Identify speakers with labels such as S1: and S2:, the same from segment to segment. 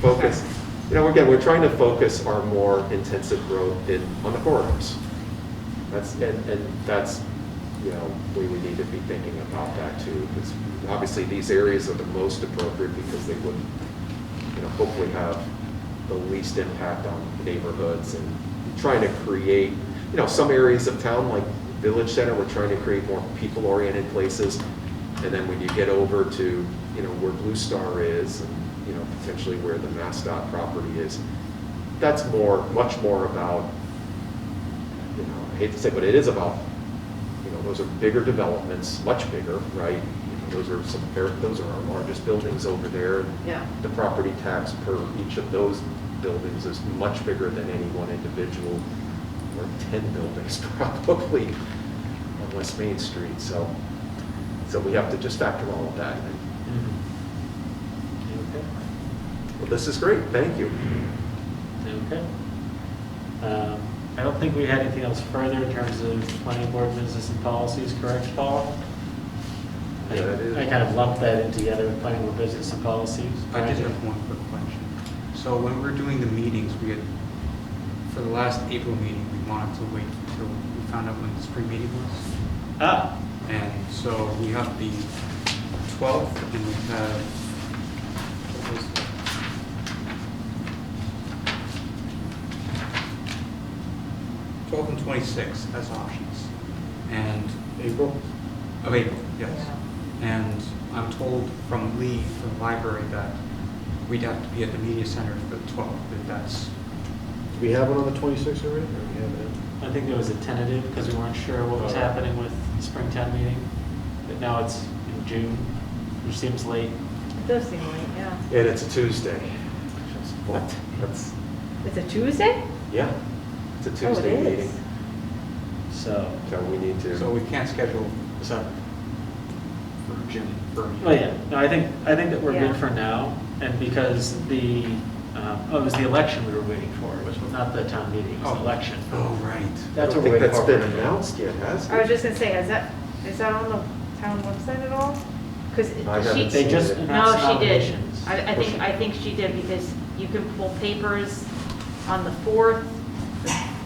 S1: focus, you know, again, we're trying to focus our more intensive growth in, on the corridors. That's, and, and that's, you know, we would need to be thinking about that too, because obviously these areas are the most appropriate because they would, you know, hopefully have the least impact on neighborhoods and trying to create, you know, some areas of town, like Village Center, we're trying to create more people-oriented places. And then when you get over to, you know, where Blue Star is, and, you know, potentially where the MassDOT property is, that's more, much more about you know, I hate to say, but it is about, you know, those are bigger developments, much bigger, right? You know, Those are some, they're- those are our largest buildings over there.
S2: Yeah.
S1: The property tax per each of those buildings is much bigger than any one individual, or 10 buildings probably on West Main Street, so, so we have to just factor all of that in.
S3: Okay.
S1: Well, this is great, thank you.
S3: Okay. Um, I don't think we had anything else further in terms of planning board business and policies, correct, Paul? I
S1: Yeah, that is-
S3: I kind of lumped that in together with planning board business and policies.
S4: I
S3: right?
S4: just have one quick question. So when we we're doing the meetings, we had, for the last April meeting, we wanted to wait until we found out when the spring meeting was.
S3: Ah,
S4: And so we have the 12th and we have, what was it? Twelve and twenty-six as options. And
S1: April?
S4: of April, yes. And I'm told from Lee, from the library, that we'd have to be at the media center for the 12th, if that's,
S5: Do we have one on the 26th already? Or we have it?
S3: I think there was a tentative because we weren't sure what was happening with the Springtown meeting, but now it's in June, which seems late.
S2: It does seem late, yeah.
S1: And it's a Tuesday. Just, What? That's,
S2: It's a Tuesday?
S1: yeah, it's a
S2: Oh, it
S1: Tuesday
S2: is.
S1: meeting.
S3: So,
S1: So we need to.
S4: so we can't schedule
S3: so,
S4: for June for a meeting.
S3: oh yeah, no, I think, I think that we're
S2: Yeah.
S3: good for now. And because the, um, oh, it was the election we were waiting for, which was not the town meeting, it was the
S4: Oh.
S3: election.
S4: Oh, right.
S3: That's
S1: I don't think
S3: what we're waiting
S1: that's
S3: for.
S1: been announced yet, has it?
S2: I was just gonna say, is that, is that on the town website at all? Because
S1: I haven't
S2: she,
S3: They just
S1: No,
S3: announced
S6: No, she did.
S3: nominations.
S6: I, I think, I think she did because you can pull papers on the 4th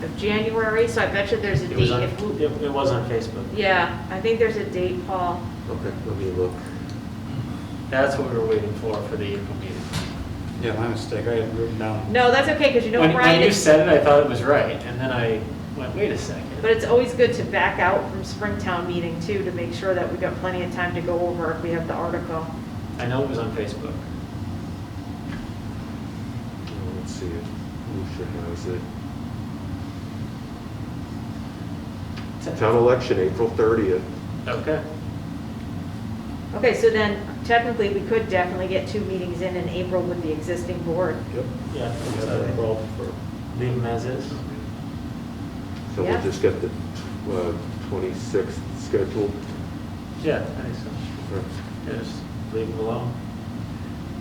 S6: of January, so I bet you there's a
S3: It was
S6: date.
S3: on,
S6: if we-
S3: it it was on Facebook.
S6: Yeah, I think there's a date, Paul.
S1: Okay, let me look.
S3: That's what we were waiting for, for the April meeting.
S4: Yeah, my mistake, I had written down.
S6: No, that's okay, because you know
S3: When, when
S6: Brian
S3: you
S6: is,
S3: said it, I thought it was right, and then I went, wait a second.
S6: but it's always good to back out from Springtown meeting too, to make sure that we've got plenty of time to go over if we have the article.
S3: I know it was on Facebook.
S1: Oh, Let's see, who should has it? Town election, April 30th.
S3: Okay.
S6: Okay, so then technically, we could definitely get two meetings in in April with the existing board.
S1: Yep.
S3: Yeah.
S1: Yeah,
S3: so
S1: April for-
S3: Leave them as is.
S1: So we'll
S6: Yeah.
S1: just get the uh, 26th scheduled.
S3: Yeah, I think so.
S1: Or-
S3: Just leave them alone.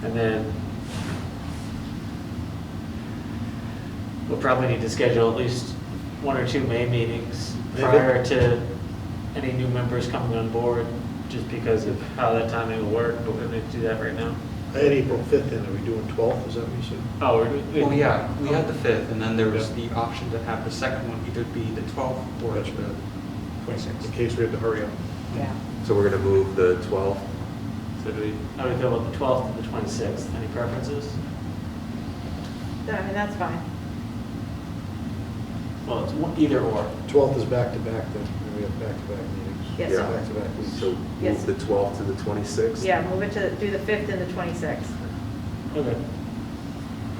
S3: And then we'll probably need to schedule at least one or two May meetings
S1: Maybe.
S3: prior to any new members coming on board, just because of how that timing will work, but we're going to do that right now.
S5: I had April 5th in, are we doing 12th, is that what you said?
S3: Oh, we're. we-
S4: Well, yeah, we had the 5th, and then there was
S5: Yeah.
S4: the option to have the second one either be the 12th or
S5: Gotcha.
S4: the 26th.
S5: In case we have to hurry up.
S2: yeah.
S1: So we're going to move the 12th.
S3: So do we, how do we feel about the 12th and the 26th? Any preferences?
S6: No, I mean, that's fine.
S3: Well, it's one- either or.
S5: 12th is back-to-back then, and we have back-to-back meetings.
S6: Yes.
S1: Yeah.
S5: Back-to-back weeks.
S1: So move
S6: Yes.
S1: the 12th to the 26th.
S6: Yeah, move it to, do the 5th and the 26th.
S3: Okay.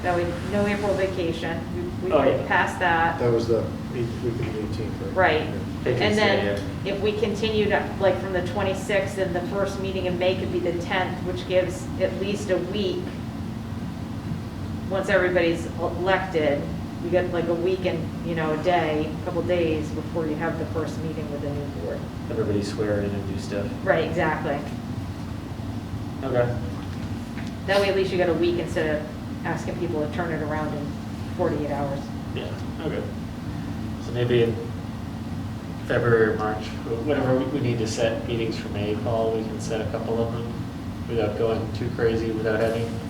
S6: That we, no April vacation, we we
S3: Oh, yeah.
S6: passed that.
S5: That was the eight- week of the 18th, right?
S6: Right.
S5: Yeah.
S6: And then if we continue to, like, from the 26th, then the first meeting in May could be the 10th, which gives at least a week. Once everybody's elected, we get like a week and, you know, a day, a couple days before you have the first meeting with the new board.
S3: Everybody swear in and do stuff.
S6: Right, exactly.
S3: Okay.
S6: That way at least you got a week instead of asking people to turn it around in 48 hours.
S3: Yeah, okay. So maybe in February or March, wh- whatever we- we need to set meetings for May, Paul, we can set a couple of them without going too crazy, without having